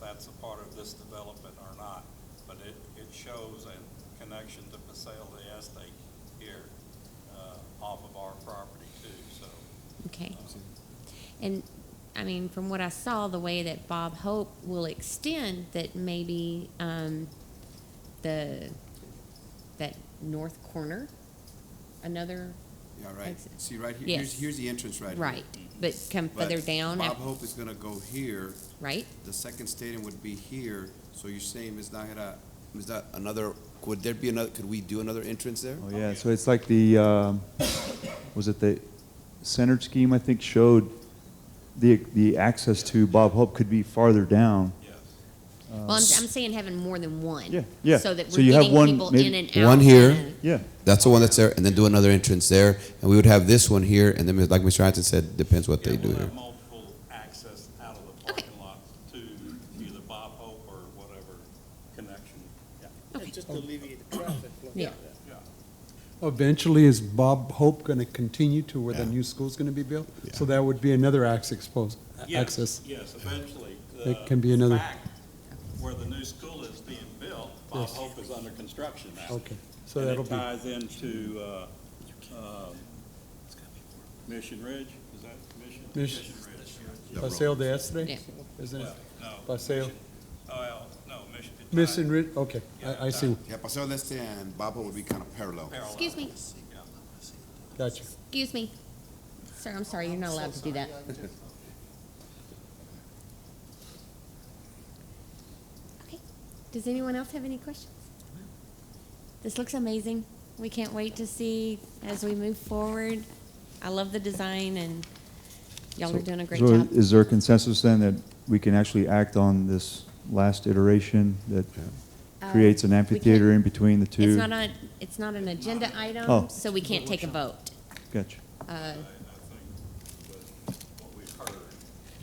that's a part of this development or not, but it, it shows a connection to Paseo de Este here, uh, off of our property too, so. Okay. uh, And, I mean, from what I saw, the way that Bob Hope will extend, that maybe, um, the, that north corner, another, Yeah, right. Exit. See, right here, here's, Yes. here's the entrance right here. right, but come But further down, Bob af- Hope is gonna go here, right? the second stadium would be here, so you're saying, Ms. Nahara, Ms. Da, another, could there be another, could we do another entrance there? Oh, yeah, so it's like the, um, was it the centered scheme, I think, showed the, the access to Bob Hope could be farther down. Yes. Well, I'm, I'm saying having more than one. Um, Yeah, yeah. So that So we're you have getting one, people in maybe- and out. One here. kinda. Yeah, That's the one that's there, and then do another entrance there, and we would have this one here, and then, like Mr. Hanson said, depends what they Yeah, do we'll here. have multiple access out of the Okay. parking lot to either Bob Hope or whatever connection, yeah, Okay. Just to alleviate the traffic flow. Yeah. yeah. Eventually, is Bob Hope going to continue to where the new school's going to be built? So that would be another axe exposed, Yes, access. Yes, eventually. It The can be another- fact Where the new school is being built, Bob Yes. Hope is under construction now. Okay, so And that'll it be, ties into, uh, um, Mission Ridge, is that Mission? Mission- Ridge. Paseo de Estre? Yeah. Isn't it? Well, No. Paseo, Mission- Oh, no, Mission. it Mission ties Rid, okay, I, I see, Yeah, Paseo del Este and Bob Hope would be kind of parallel. parallel. Excuse me, Yeah. gotcha. excuse me. Sir, I'm sorry, you're not allowed to do that. Okay. Does anyone else have any questions? This looks amazing. We can't wait to see as we move forward. I love the design and y'all are doing a great So job. Is there a consensus then that we can actually act on this last iteration that creates an Uh, we amphitheater in can't- between the two? It's not on, it's not an agenda Oh. item, so we can't take a vote. Uh, Gotcha, I I think, but what we've heard,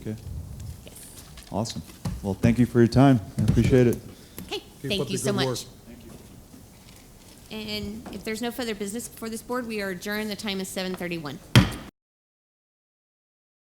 okay. Awesome. Well, thank you for your time. I appreciate it. Okay, Keep up thank the you so good work. much. And if there's no further business before this board, we are adjourned. The time is seven thirty-one.